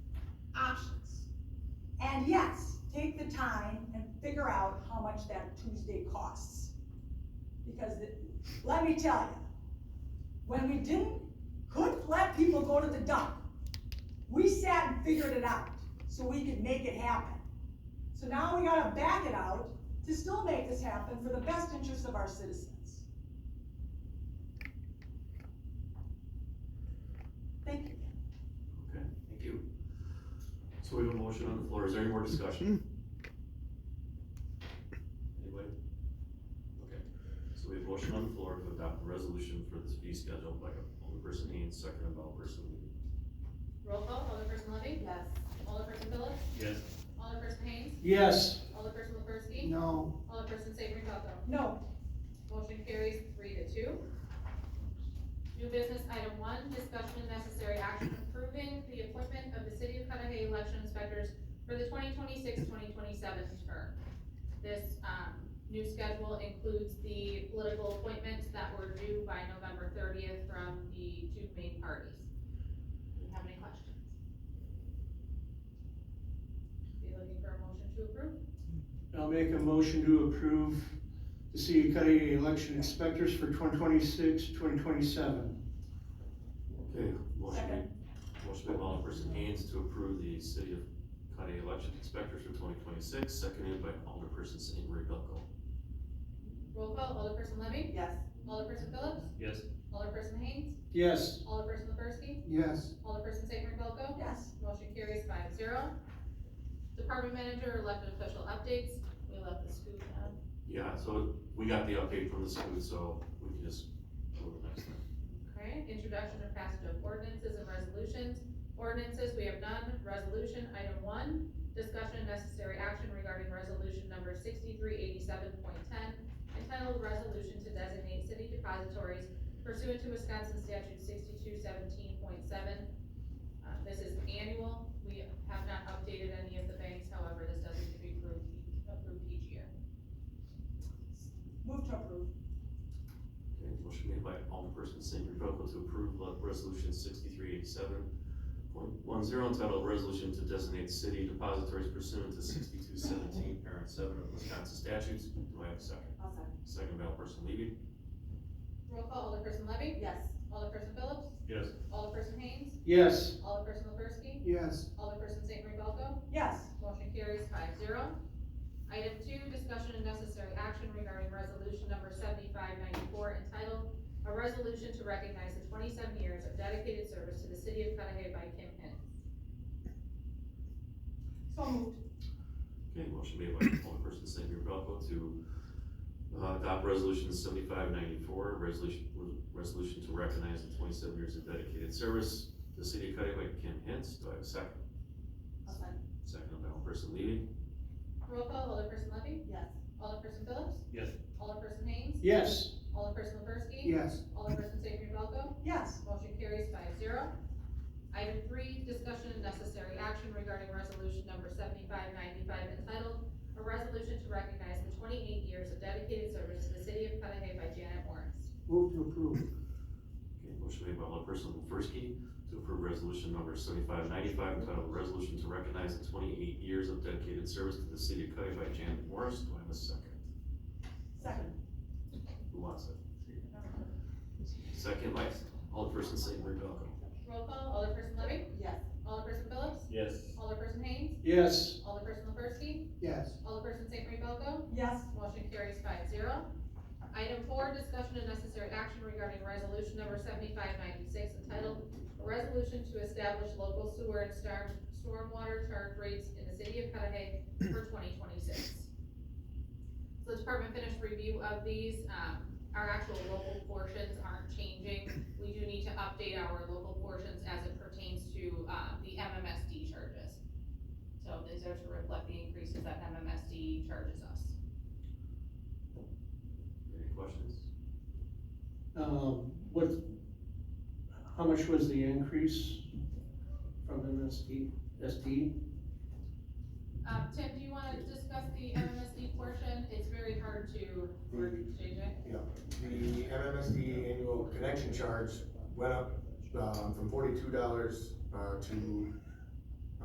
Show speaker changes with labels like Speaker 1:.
Speaker 1: And yes, take the time and figure out how much that Tuesday costs. Because, it- let me tell you, when we didn't, couldn't let people go to the dump, we sat and figured it out, so we could make it happen. So now we gotta back it out to still make this happen for the best interest of our citizens. Thank you.
Speaker 2: Okay, thank you. So we have a motion on the floor, is there any more discussion? Anybody? Okay, so we have a motion on the floor to adopt a resolution for this fee schedule by Alderperson Haynes, second by Alderperson Lee.
Speaker 3: Roll call, Alderperson Levy?
Speaker 1: Yes.
Speaker 3: Alderperson Phillips?
Speaker 2: Yes.
Speaker 3: Alderperson Haynes?
Speaker 4: Yes.
Speaker 3: Alderperson LaFerski?
Speaker 4: No.
Speaker 3: Alderperson Sabrin Palato?
Speaker 1: No,
Speaker 3: Motion carries three to two. New business item one, discussion and necessary action approving the appointment of the City of Cudahy election inspectors for the 2026-2027 term. This, um, new schedule includes the political appointments that were due by November thirtieth from the two main parties. Do you have any questions? Be looking for a motion to approve?
Speaker 4: I'll make a motion to approve the city of Cudahy election inspectors for 2026, 2027.
Speaker 2: Okay, motion
Speaker 1: Second.
Speaker 2: made, motion made by Alderperson Haynes to approve the City of Cudahy election inspectors for twenty twenty-six, seconded by Alderperson St. Marie Belko.
Speaker 3: Roll call, Alderperson Levy?
Speaker 1: yes.
Speaker 3: Alderperson Phillips?
Speaker 2: Yes.
Speaker 3: Alderperson Haynes?
Speaker 4: Yes.
Speaker 3: Alderperson LaFerski?
Speaker 4: Yes.
Speaker 3: Alderperson St. Belko?
Speaker 1: Yes.
Speaker 3: Motion carries five zero. Department manager, elected official updates. We left the scoop down.
Speaker 2: Yeah, so we got the update from the school, so we can just go to the next thing.
Speaker 3: Okay, introduction and passage of ordinances and resolutions. Ordinances, we have none. Resolution, item one, discussion and necessary action regarding resolution number sixty-three eighty-seven point ten, entitled Resolution to Designate City Depositories pursuant to Wisconsin statute sixty-two seventeen point seven. Uh, this is annual. We have not updated any of the banks, however, this does need to be approved, approved each year.
Speaker 1: Move to approve.
Speaker 2: Okay, motion made by Alderperson St. Rebecca to approve le- resolution sixty-three eighty-seven point one zero entitled Resolution to Designate City Depositories Pursuant to sixty-two seventeen, parent seven of Wisconsin statutes. Do I have a second?
Speaker 1: I'll second.
Speaker 2: Second by Alderperson Levy.
Speaker 3: Roll call, Alderperson Levy?
Speaker 1: Yes.
Speaker 3: Alderperson Phillips?
Speaker 2: Yes.
Speaker 3: Alderperson Haynes?
Speaker 4: Yes.
Speaker 3: Alderperson LaFerski?
Speaker 4: Yes.
Speaker 3: Alderperson St. Marie Belko?
Speaker 1: Yes.
Speaker 3: Motion carries five zero. Item two, discussion and necessary action regarding resolution number seventy-five ninety-four entitled A Resolution to Recognize the Twenty-Seven Years of Dedicated Service to the City of Cudahy by Kim Hinn.
Speaker 1: So moved.
Speaker 2: Okay, motion made by Alderperson St. Rebecca to uh, adopt resolution seventy-five ninety-four, resolution, resolution to recognize the twenty-seven years of dedicated service to the city of Cudahy by Kim Hintz. Do I have a second?
Speaker 1: I'll second.
Speaker 2: Second by Alderperson Levy.
Speaker 3: Roll call, Alderperson Levy?
Speaker 1: Yes.
Speaker 3: Alderperson Phillips?
Speaker 2: Yes.
Speaker 3: Alderperson Haynes?
Speaker 4: Yes.
Speaker 3: Alderperson LaFerski?
Speaker 4: Yes.
Speaker 3: Alderperson St. Marie Belko?
Speaker 1: Yes.
Speaker 3: Motion carries five zero. Item three, discussion and necessary action regarding resolution number seventy-five ninety-five entitled, "A Resolution to Recognize the Twenty-Eight Years of Dedicated Service to the City of Cudahy" by Janet Morris.
Speaker 4: Move to approve.
Speaker 2: Okay, motion made by Alderperson Wolfers-Key to approve resolution number seventy-five ninety-five entitled "A Resolution to Recognize the Twenty-Eight Years of Dedicated Service to the City of Cudahy by Janet Morris. Do I have a second?
Speaker 1: Second.
Speaker 2: Who wants it? Second by Alderperson St. Marie Belko.
Speaker 3: Roll call, Alderperson Levy?
Speaker 1: Yes.
Speaker 3: Alderperson Phillips?
Speaker 2: Yes.
Speaker 3: Alderperson Haynes?
Speaker 4: Yes.
Speaker 3: Alderperson LaFerski?
Speaker 4: Yes.
Speaker 3: Alderperson St. Marie Belko?
Speaker 1: Yes.
Speaker 3: Motion carries five zero. Item four, discussion and necessary action regarding resolution number seventy-five ninety-six entitled, "A Resolution to Establish Local Sewer and Storm, Stormwater Charge Rates in the City of Cudahy for twenty twenty-six." So the department finished review of these, um, our actual local portions aren't changing. We do need to update our local portions as it pertains to, uh, the MMSD charges. So these are to reflect the increases that MMSD charges us.
Speaker 2: Any questions?
Speaker 4: Um, what, how much was the increase from MSD, SD?
Speaker 3: Um, Tim, do you wanna discuss the MMSD portion? It's very hard to, JJ?
Speaker 5: The MMSD annual connection charge went up, um, from forty-two dollars, uh, to